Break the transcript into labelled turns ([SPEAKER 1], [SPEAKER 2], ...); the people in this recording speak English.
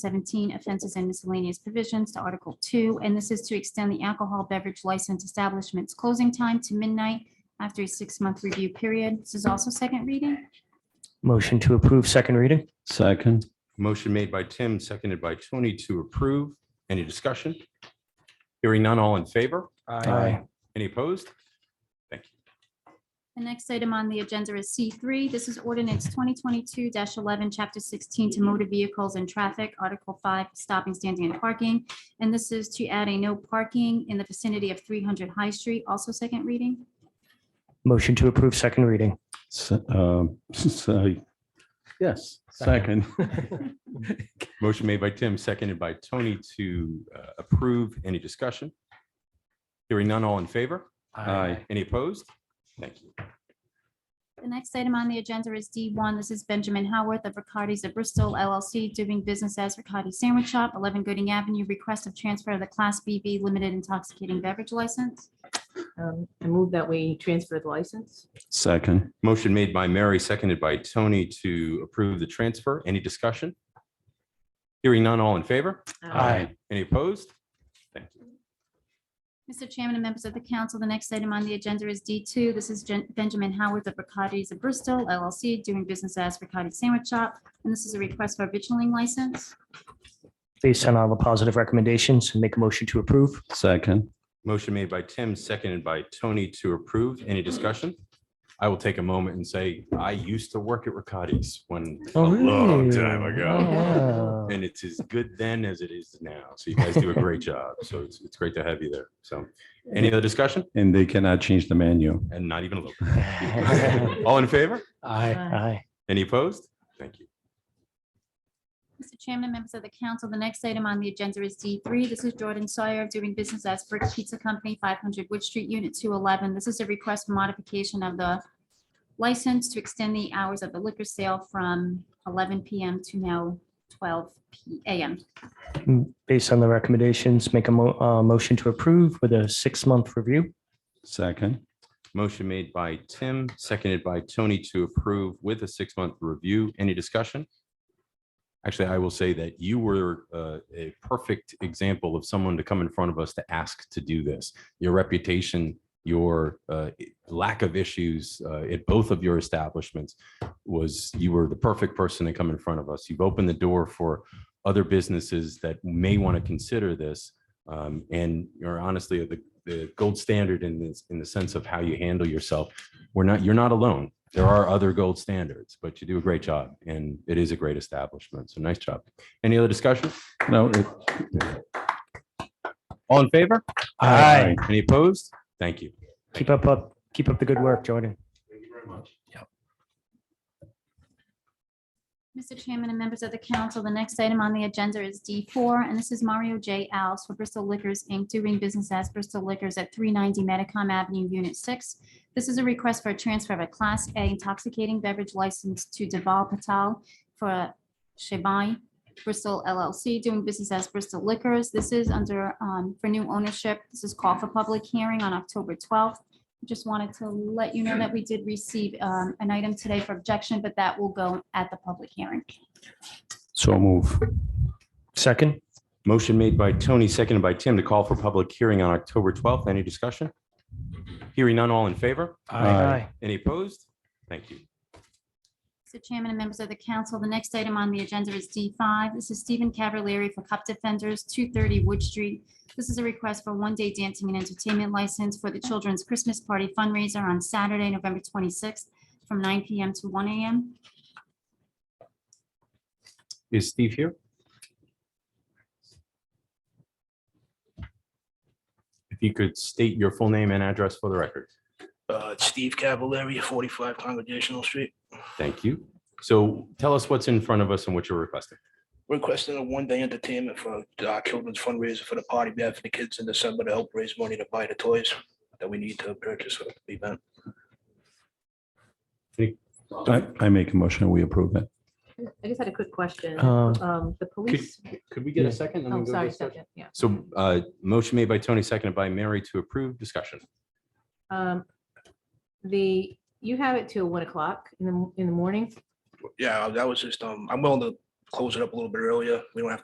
[SPEAKER 1] seventeen offenses and miscellaneous provisions to Article two, and this is to extend the alcohol beverage license establishment's closing time to midnight after a six-month review period. This is also second reading.
[SPEAKER 2] Motion to approve second reading?
[SPEAKER 3] Second.
[SPEAKER 4] Motion made by Tim, seconded by Tony to approve. Any discussion? Hearing none, all in favor? Any opposed?
[SPEAKER 1] The next item on the agenda is C three. This is ordinance twenty twenty-two eleven, chapter sixteen to motor vehicles and traffic, article five, stopping, standing and parking. And this is to add a no parking in the vicinity of three hundred High Street, also second reading.
[SPEAKER 2] Motion to approve second reading?
[SPEAKER 3] S- um, so- Yes, second.
[SPEAKER 4] Motion made by Tim, seconded by Tony to uh, approve. Any discussion? Hearing none, all in favor? Any opposed? Thank you.
[SPEAKER 1] The next item on the agenda is D1. This is Benjamin Howarth of Ricardi's of Bristol LLC, doing business as Ricardi Sandwich Shop, 11 Gooding Avenue, request of transfer of the Class BV Limited Intoxicating Beverage License.
[SPEAKER 5] Um, I move that we transfer the license.
[SPEAKER 3] Second.
[SPEAKER 4] Motion made by Mary, seconded by Tony to approve the transfer. Any discussion? Hearing none, all in favor?
[SPEAKER 5] Um,
[SPEAKER 4] Any opposed? Thank you.
[SPEAKER 1] Mr. Chairman and members of the council, the next item on the agenda is D2. This is Gen- Benjamin Howarth of Ricardi's of Bristol LLC, doing business as Ricardi Sandwich Shop, and this is a request for a vigiling license.
[SPEAKER 2] Based on all the positive recommendations, make a motion to approve?
[SPEAKER 3] Second.
[SPEAKER 4] Motion made by Tim, seconded by Tony to approve. Any discussion? I will take a moment and say, I used to work at Riccati's when, a long time ago.
[SPEAKER 2] Oh, wow.
[SPEAKER 4] And it's as good then as it is now. So you guys do a great job. So it's, it's great to have you there. So any other discussion?
[SPEAKER 3] And they cannot change the menu.
[SPEAKER 4] And not even a little. All in favor?
[SPEAKER 2] Aye.
[SPEAKER 4] Any opposed? Thank you.
[SPEAKER 1] Mr. Chairman and members of the council, the next item on the agenda is D3. This is Jordan Sawyer doing business as Brick Pizza Company, 500 Wood Street, Unit 211. This is a request for modification of the license to extend the hours of the liquor sale from 11 PM to now 12 P- AM.
[SPEAKER 2] Based on the recommendations, make a mo- uh, motion to approve with a six-month review?
[SPEAKER 3] Second.
[SPEAKER 4] Motion made by Tim, seconded by Tony to approve with a six-month review. Any discussion? Actually, I will say that you were uh, a perfect example of someone to come in front of us to ask to do this. Your reputation, your uh, lack of issues uh, at both of your establishments was, you were the perfect person to come in front of us. You've opened the door for other businesses that may want to consider this. um, And you're honestly the the gold standard in this, in the sense of how you handle yourself. We're not, you're not alone. There are other gold standards, but you do a great job and it is a great establishment. So nice job. Any other discussion?
[SPEAKER 3] No. it-
[SPEAKER 4] All in favor?
[SPEAKER 2] Aye.
[SPEAKER 4] Any opposed? Thank you.
[SPEAKER 2] Keep up, up, keep up the good work, Jordan.
[SPEAKER 1] Mr. Chairman and members of the council, the next item on the agenda is D4, and this is Mario J. Alves for Bristol Liquors, Inc., doing business as Bristol Liquors at 390 Medicom Avenue, Unit 6. This is a request for a transfer of a Class A intoxicating beverage license to Deval Patel for Shebai Bristol LLC, doing business as Bristol Liquors. This is under, um, for new ownership. This is called for public hearing on October 12th. Just wanted to let you know that we did receive um, an item today for objection, but that will go at the public hearing.
[SPEAKER 3] So move.
[SPEAKER 2] Second?
[SPEAKER 4] Motion made by Tony, seconded by Tim to call for public hearing on October 12th. Any discussion? Hearing none, all in favor?
[SPEAKER 3] Aye.
[SPEAKER 4] Any opposed? Thank you.
[SPEAKER 1] Mr. Chairman and members of the council, the next item on the agenda is D5. This is Stephen Cavallari for Cup Defenders, 230 Wood Street. This is a request for one-day dancing and entertainment license for the Children's Christmas Party fundraiser on Saturday, November 26th, from 9 PM to 1 AM.
[SPEAKER 4] Is Steve here? If you could state your full name and address for the record.
[SPEAKER 6] Uh, Steve Cavallari, 45 Congregational Street.
[SPEAKER 4] Thank you. So tell us what's in front of us and what you're requesting.
[SPEAKER 6] Requesting a one-day entertainment for our children's fundraiser for the party we have for the kids in December to help raise money to buy the toys that we need to purchase for the event.
[SPEAKER 3] I, I make a motion, we approve it.
[SPEAKER 5] I just had a quick question.
[SPEAKER 2] Um,
[SPEAKER 5] Um, the police,
[SPEAKER 4] Uh, Could we
[SPEAKER 2] get a Yeah.
[SPEAKER 4] second?
[SPEAKER 5] oh, sorry, second, yeah.
[SPEAKER 4] So uh, motion made by Tony, seconded by Mary to approve discussion.
[SPEAKER 5] Um, the, you have it till one o'clock in the, in the morning?
[SPEAKER 6] Yeah, that was just, um, I'm willing to close it up a little bit earlier. We don't have to